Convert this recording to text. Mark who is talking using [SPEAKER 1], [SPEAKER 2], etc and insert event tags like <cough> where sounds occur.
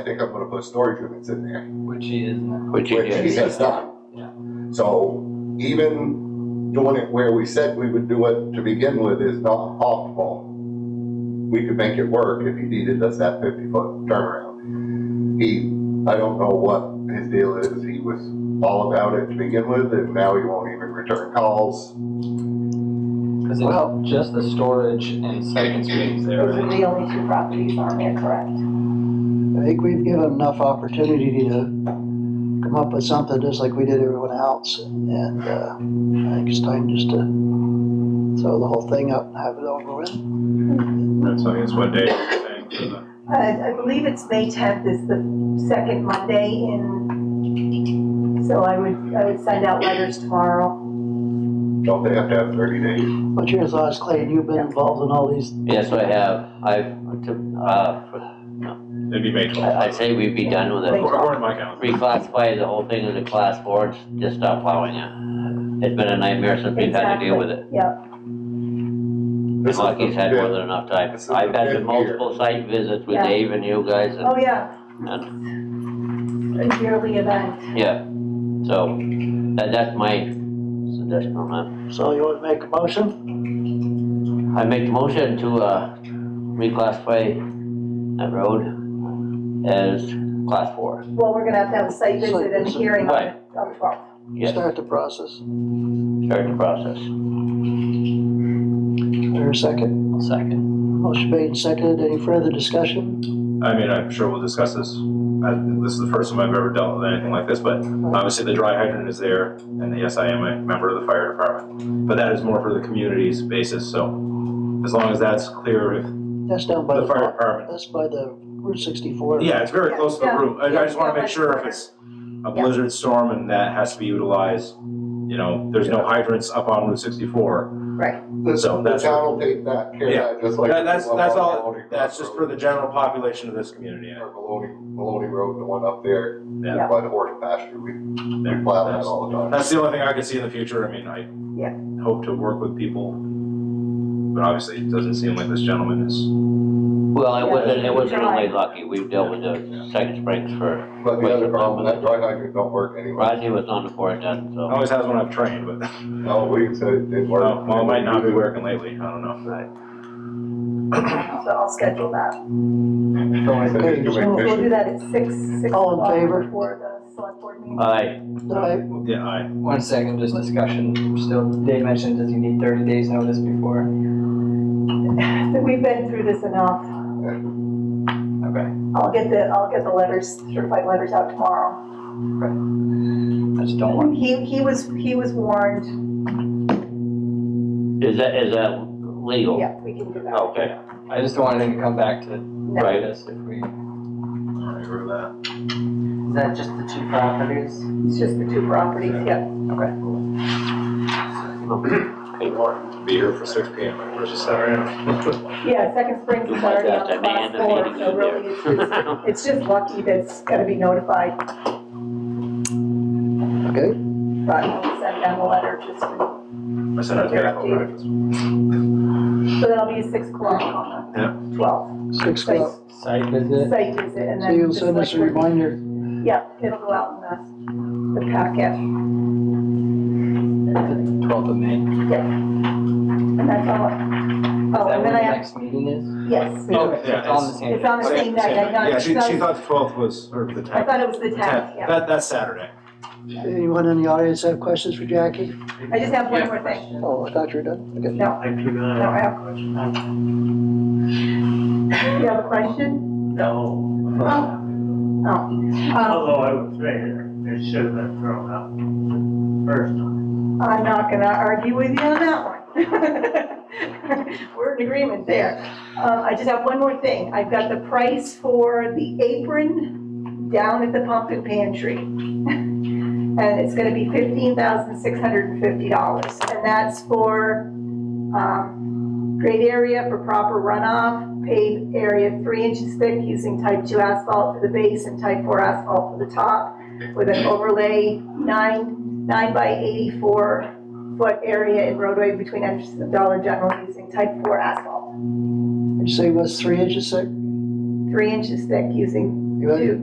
[SPEAKER 1] I think I'm gonna put storage units in there.
[SPEAKER 2] Which he is now.
[SPEAKER 3] Which you
[SPEAKER 1] which he
[SPEAKER 3] did.
[SPEAKER 1] has done.
[SPEAKER 2] Yeah.
[SPEAKER 1] So even doing it where we said we would do it to begin with is not optimal. We could make it work if he needed us that fifty foot turnaround. He, I don't know what his deal is, he was all about it to begin with, and now he won't even return calls.
[SPEAKER 2] Cause it's
[SPEAKER 4] Well-
[SPEAKER 2] just the storage and second space there,
[SPEAKER 4] Those
[SPEAKER 2] right?
[SPEAKER 4] are
[SPEAKER 5] The only two properties on there, correct?
[SPEAKER 4] I think we've given enough opportunity to come up with something just like we did everyone else. And, uh, I think it's time just to throw the whole thing up and have it over with.
[SPEAKER 6] That's, I guess, what day you're saying for the,
[SPEAKER 5] Uh, I, I believe it's May tenth is the second Monday in, so I would, I would send out letters tomorrow.
[SPEAKER 1] Don't they have to have thirty days?
[SPEAKER 4] What's your thoughts, Clay? You've been involved in all these,
[SPEAKER 3] Yes, I have, I've, to- uh,
[SPEAKER 6] it'd be
[SPEAKER 3] I-
[SPEAKER 6] May
[SPEAKER 3] I'd
[SPEAKER 6] twelfth.
[SPEAKER 3] say we'd be done with it.
[SPEAKER 6] According to my calendar.
[SPEAKER 3] Reclassify the whole thing into class four, and just stop plowing it. It's been a nightmare since we've had to deal with it.
[SPEAKER 5] Yeah,
[SPEAKER 1] This is
[SPEAKER 3] Lucky's had
[SPEAKER 1] the
[SPEAKER 3] more than enough time.
[SPEAKER 1] This is
[SPEAKER 3] I've
[SPEAKER 1] the
[SPEAKER 3] had
[SPEAKER 1] fifth
[SPEAKER 3] multiple site visits with
[SPEAKER 5] Yeah.
[SPEAKER 3] Dave and you guys,
[SPEAKER 5] oh,
[SPEAKER 3] and,
[SPEAKER 5] yeah,
[SPEAKER 3] and,
[SPEAKER 5] a yearly event.
[SPEAKER 3] yeah, so, that, that's my suggestion on that.
[SPEAKER 4] so you want to make a motion?
[SPEAKER 3] I make the motion to, uh, reclassify that road as class four.
[SPEAKER 5] Well, we're gonna have to have a site visit and a hearing on the, on the twelfth.
[SPEAKER 3] Yes,
[SPEAKER 4] Start the process.
[SPEAKER 3] start the process.
[SPEAKER 4] Or a second.
[SPEAKER 2] Second.
[SPEAKER 4] Motion made and seconded. Any further discussion?
[SPEAKER 6] I mean, I'm sure we'll discuss this. I, this is the first time I've ever dealt with anything like this, but obviously the dry hydrant is there, and yes, I am a member of the fire department. But that is more for the community's basis, so as long as that's clear with
[SPEAKER 4] That's down by
[SPEAKER 6] the fire
[SPEAKER 4] the,
[SPEAKER 6] department.
[SPEAKER 4] that's by the Route sixty-four.
[SPEAKER 6] Yeah, it's very close to the
[SPEAKER 5] Yeah.
[SPEAKER 6] route. I, I just wanna
[SPEAKER 5] Yeah.
[SPEAKER 6] make sure if it's a blizzard storm and that has to be utilized, you know, there's no hydrants up on Route sixty-four. So
[SPEAKER 1] The
[SPEAKER 6] that's-
[SPEAKER 1] town will take that care of that, just like.
[SPEAKER 6] That- that's,
[SPEAKER 1] the one
[SPEAKER 6] that's
[SPEAKER 1] on
[SPEAKER 6] all,
[SPEAKER 1] Maloney
[SPEAKER 6] that's just for
[SPEAKER 1] Road,
[SPEAKER 6] the general population of this community.
[SPEAKER 1] Or Maloney, Maloney Road, the one up there
[SPEAKER 6] Yeah.
[SPEAKER 1] by the horse pasture, we, we
[SPEAKER 6] There.
[SPEAKER 1] plow that
[SPEAKER 6] That's-
[SPEAKER 1] all the time.
[SPEAKER 6] That's the only thing I could see in the future. I mean, I
[SPEAKER 5] Yeah.
[SPEAKER 6] hope to work with people, but obviously it doesn't seem like this gentleman is.
[SPEAKER 3] Well, it
[SPEAKER 5] Yeah.
[SPEAKER 3] wasn't, it wasn't
[SPEAKER 5] July.
[SPEAKER 3] only lucky, we've dealt with the second springs for,
[SPEAKER 1] But the other problem, that dry hydrant don't work anyway.
[SPEAKER 3] Rodney was on the board then, so.
[SPEAKER 6] Always has when I've trained, but <laughs>
[SPEAKER 1] No, we said it didn't work.
[SPEAKER 6] well, well, it might not be working lately. I don't know.
[SPEAKER 5] So I'll schedule that.
[SPEAKER 1] Someone said it's doing
[SPEAKER 4] Okay,
[SPEAKER 5] We'll
[SPEAKER 1] fishing.
[SPEAKER 5] do that at six, six
[SPEAKER 4] All in
[SPEAKER 5] o'clock
[SPEAKER 4] favor?
[SPEAKER 5] before the select board meeting.
[SPEAKER 3] Aye,
[SPEAKER 4] Aye.
[SPEAKER 6] Yeah, I,
[SPEAKER 2] One second, just discussion, still, Dave mentioned, does he need thirty days notice before?
[SPEAKER 5] We've been through this enough.
[SPEAKER 2] Okay,
[SPEAKER 5] I'll get the, I'll get the letters, certified letters out tomorrow.
[SPEAKER 2] I just don't want,
[SPEAKER 5] He, he was, he was warned,
[SPEAKER 3] is that, is that legal?
[SPEAKER 5] yeah, we can do that.
[SPEAKER 3] Okay,
[SPEAKER 2] I just don't want anything to come back to
[SPEAKER 5] No.
[SPEAKER 3] Right.
[SPEAKER 2] this if we.
[SPEAKER 6] I agree with that.
[SPEAKER 7] Is that just the two properties?
[SPEAKER 5] It's just the two properties, yeah.
[SPEAKER 6] Be here for six P M. versus Saturday.
[SPEAKER 5] Yeah, Second Springs
[SPEAKER 3] You
[SPEAKER 5] is
[SPEAKER 3] might
[SPEAKER 5] already
[SPEAKER 3] have
[SPEAKER 5] on
[SPEAKER 3] to
[SPEAKER 5] class
[SPEAKER 3] man the
[SPEAKER 5] four, so really,
[SPEAKER 3] meeting
[SPEAKER 5] it's just,
[SPEAKER 3] <laughs>
[SPEAKER 5] it's just lucky that's gotta be notified,
[SPEAKER 4] Okay.
[SPEAKER 5] but I'll send them a letter just, to-
[SPEAKER 6] I said I was gonna call breakfast.
[SPEAKER 5] so that'll be six o'clock on the twelfth.
[SPEAKER 4] Six o'clock.
[SPEAKER 2] Site visit?
[SPEAKER 5] Site visit, and
[SPEAKER 4] So
[SPEAKER 5] then.
[SPEAKER 4] you'll
[SPEAKER 5] just
[SPEAKER 4] send us a
[SPEAKER 5] like-
[SPEAKER 4] reminder.
[SPEAKER 5] Yeah, it'll go out in the, the packet,
[SPEAKER 2] Twelfth of May. Is
[SPEAKER 5] and that's all. Oh,
[SPEAKER 2] that
[SPEAKER 5] and
[SPEAKER 2] when
[SPEAKER 5] then I
[SPEAKER 2] the
[SPEAKER 5] have,
[SPEAKER 2] next meeting is?
[SPEAKER 5] yes,
[SPEAKER 6] Oh,
[SPEAKER 2] Okay, so
[SPEAKER 6] yeah,
[SPEAKER 2] It's on
[SPEAKER 6] it's-
[SPEAKER 2] the same.
[SPEAKER 5] it's on the same night, I thought,
[SPEAKER 6] Yeah,
[SPEAKER 5] it
[SPEAKER 6] she, she
[SPEAKER 5] was-
[SPEAKER 6] thought the twelfth was, or the tenth.
[SPEAKER 5] I thought it was the tenth,
[SPEAKER 6] Tenth,
[SPEAKER 5] yeah.
[SPEAKER 6] that, that's Saturday.
[SPEAKER 4] Anyone in the audience have questions for Jackie?
[SPEAKER 5] I just have one more thing.
[SPEAKER 4] Oh, I thought you were done. Okay.
[SPEAKER 5] No. No, I have a question. You have a question?
[SPEAKER 7] No,
[SPEAKER 5] Oh. Oh. Um,
[SPEAKER 7] although I was there, it should have been thrown out first time.
[SPEAKER 5] I'm not gonna argue with you on that one. <laughs> We're in agreement there. Uh, I just have one more thing. I've got the price for the apron down at the pump and pantry. <laughs> And it's gonna be fifteen thousand six hundred and fifty dollars, and that's for, um, grade area for proper runoff, paved area three inches thick using type two asphalt for the base and type four asphalt for the top, with an overlay nine nine by eighty-four foot area in roadway between entrances of Dollar General using type four asphalt.
[SPEAKER 4] You say it was three inches thick?
[SPEAKER 5] Three inches thick using You ready?